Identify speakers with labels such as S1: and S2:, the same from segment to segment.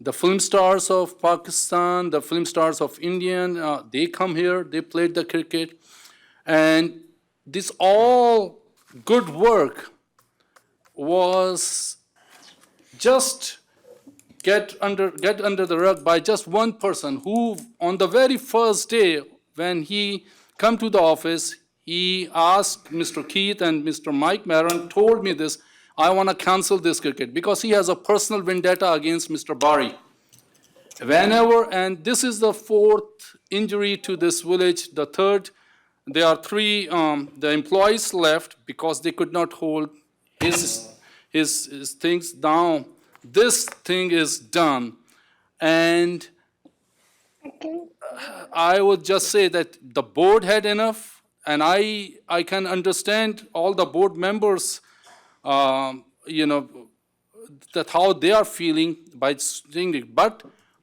S1: the film stars of Pakistan, the film stars of Indian, uh, they come here, they played the cricket. And this all good work was just get under get under the rug by just one person who on the very first day when he come to the office he asked mr keith and mr mike maron told me this i want to cancel this cricket because he has a personal vendetta against mr bari whenever and this is the fourth injury to this village the third there are three um, the employees left because they could not hold his his, his things down this thing is done and I would just say that the board had enough, and I, I can understand all the board members, um, you know, that how they are feeling by seeing it, but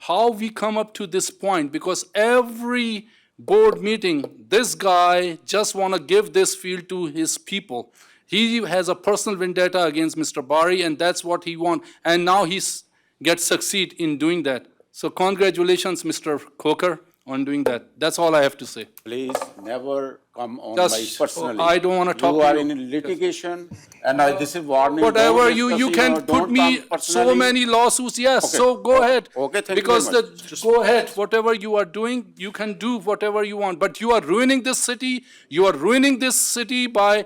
S1: how we come up to this point, because every board meeting, this guy just wanna give this field to his people. He has a personal vendetta against Mr. Bari, and that's what he want, and now he's, gets succeed in doing that. So congratulations, Mr. Coker, on doing that. That's all I have to say.
S2: Please never come on
S1: That's-
S2: my personally.
S1: oh, I don't wanna talk
S2: You
S1: to
S2: are
S1: you.
S2: in litigation and I, this is warning. don't
S1: Whatever, you, you
S2: discuss,
S1: can
S2: know,
S1: put
S2: don't
S1: me
S2: come personally.
S1: so many lawsuits, yes, so go ahead.
S2: Okay, thank you
S1: Because
S2: very
S1: the, go ahead, whatever you are doing, you can do whatever you want, but you are ruining this city, you are ruining this city by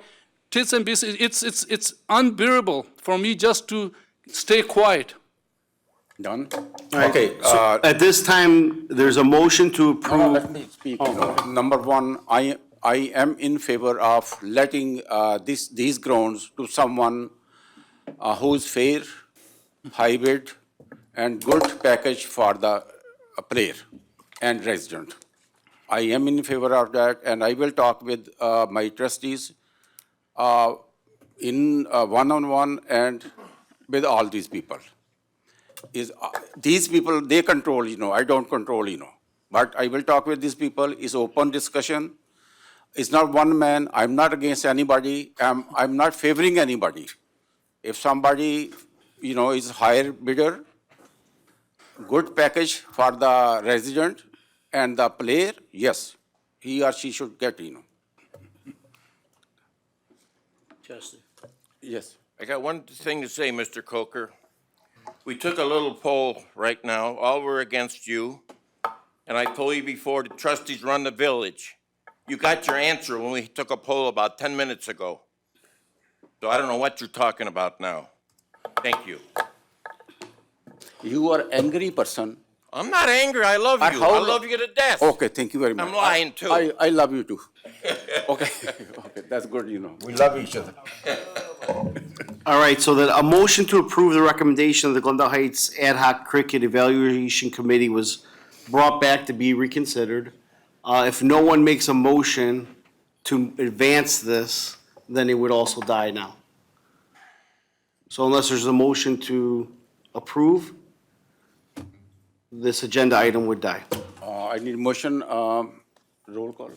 S1: tits and bits. It's, it's, it's unbearable for me just to stay quiet.
S2: Done.
S3: Okay, so at this time, there's a motion to
S2: No,
S3: approve.
S2: Let me speak. you know. uh, Number one, I, I am in favor of letting uh, this, these grounds to someone uh, who's fair, hybrid, and good package for the uh, player and resident. I am in favor of that, and I will talk with uh, my trustees uh, in uh, one-on-one and with all these people is uh, these people they control you know i don't control you know but i will talk with these people it's open discussion it's not one man i'm not against anybody i'm, I'm not favoring anybody if somebody you know is higher bidder good package for the resident and the player yes he or she should get you know yes
S4: I got one thing to say, Mr. Coker. We took a little poll right now, all were against you. And I told you before, the trustees run the village. You got your answer when we took a poll about ten minutes ago. So I don't know what you're talking about now. Thank you.
S2: you are angry person
S4: I'm not angry, I Oh. love
S2: But
S4: you,
S2: how
S4: I
S2: lo-
S4: love you to death.
S2: Okay, thank you very much.
S4: I'm lying too.
S2: I, I love you too. Okay, okay, that's good, you know.
S3: All right, so that a motion to approve the recommendation of the Glendale Heights Ad hoc Cricket Evaluation Committee was brought back to be reconsidered. Uh, if no one makes a motion to advance this, then it would also die now. So unless there's a motion to approve, this agenda item would die.
S2: Uh, I need motion, um, roll call.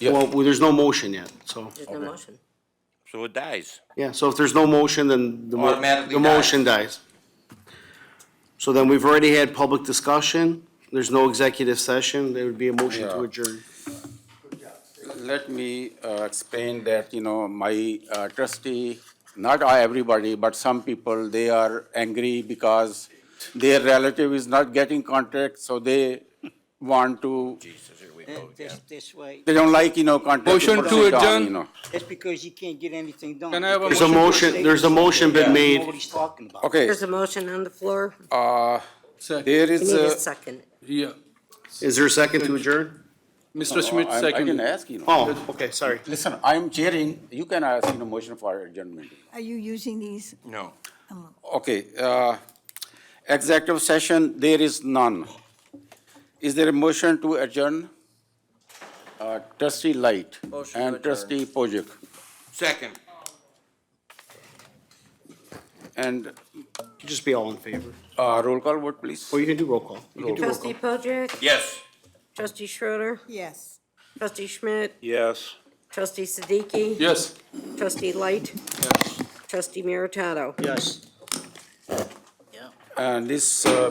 S3: Well, there's no motion yet, so.
S5: There's no motion.
S4: So it dies.
S3: Yeah, so if there's no motion, then the, mo-
S4: Automatically
S3: the motion dies. So then we've already had public discussion, there's no executive session, there would be a motion to adjourn.
S2: Let me uh, explain that, you know, my uh, trustee, not I everybody, but some people, they are angry because their relative is not getting contract, so they want to,
S4: Jesus, here we go again.
S6: That's, that's why,
S2: they don't like, you know, contract.
S1: Motion to
S2: proceed on,
S1: adjourn.
S2: you know.
S6: that's because you can't get anything done.
S1: Can I have a
S3: There's a motion, there's a motion been
S6: You know
S3: made,
S6: what he's talking about.
S2: Okay,
S5: There's a motion on the floor.
S2: uh,
S1: Second.
S2: there
S5: We
S2: is
S5: need a
S2: a. uh,
S5: second.
S1: Yeah,
S3: is there a second to adjourn?
S1: Mr. Schmidt,
S2: I- I can
S1: second.
S2: ask, you know.
S3: Oh, okay, sorry.
S2: Listen, I'm chairing, you can ask, you know, motion for adjournment.
S7: Are you using these?
S4: No.
S2: Okay, uh, executive session, there is none. Is there a motion to adjourn? Uh, Trustee Light
S4: Motion to
S2: and
S4: adjourn.
S2: trustee Pojek
S4: Second.
S2: and
S3: Could Just be all in favor,
S2: uh, roll call vote, please.
S3: or you can do roll call. You can do roll
S5: Trustee
S3: call.
S5: Pojek,
S4: Yes.
S5: trustee Schroeder,
S7: Yes.
S5: trustee Schmidt,
S4: Yes.
S5: trustee Siddiqui,
S1: Yes.
S5: trustee Light, trustee Meritato.
S3: Yes.
S2: And this uh,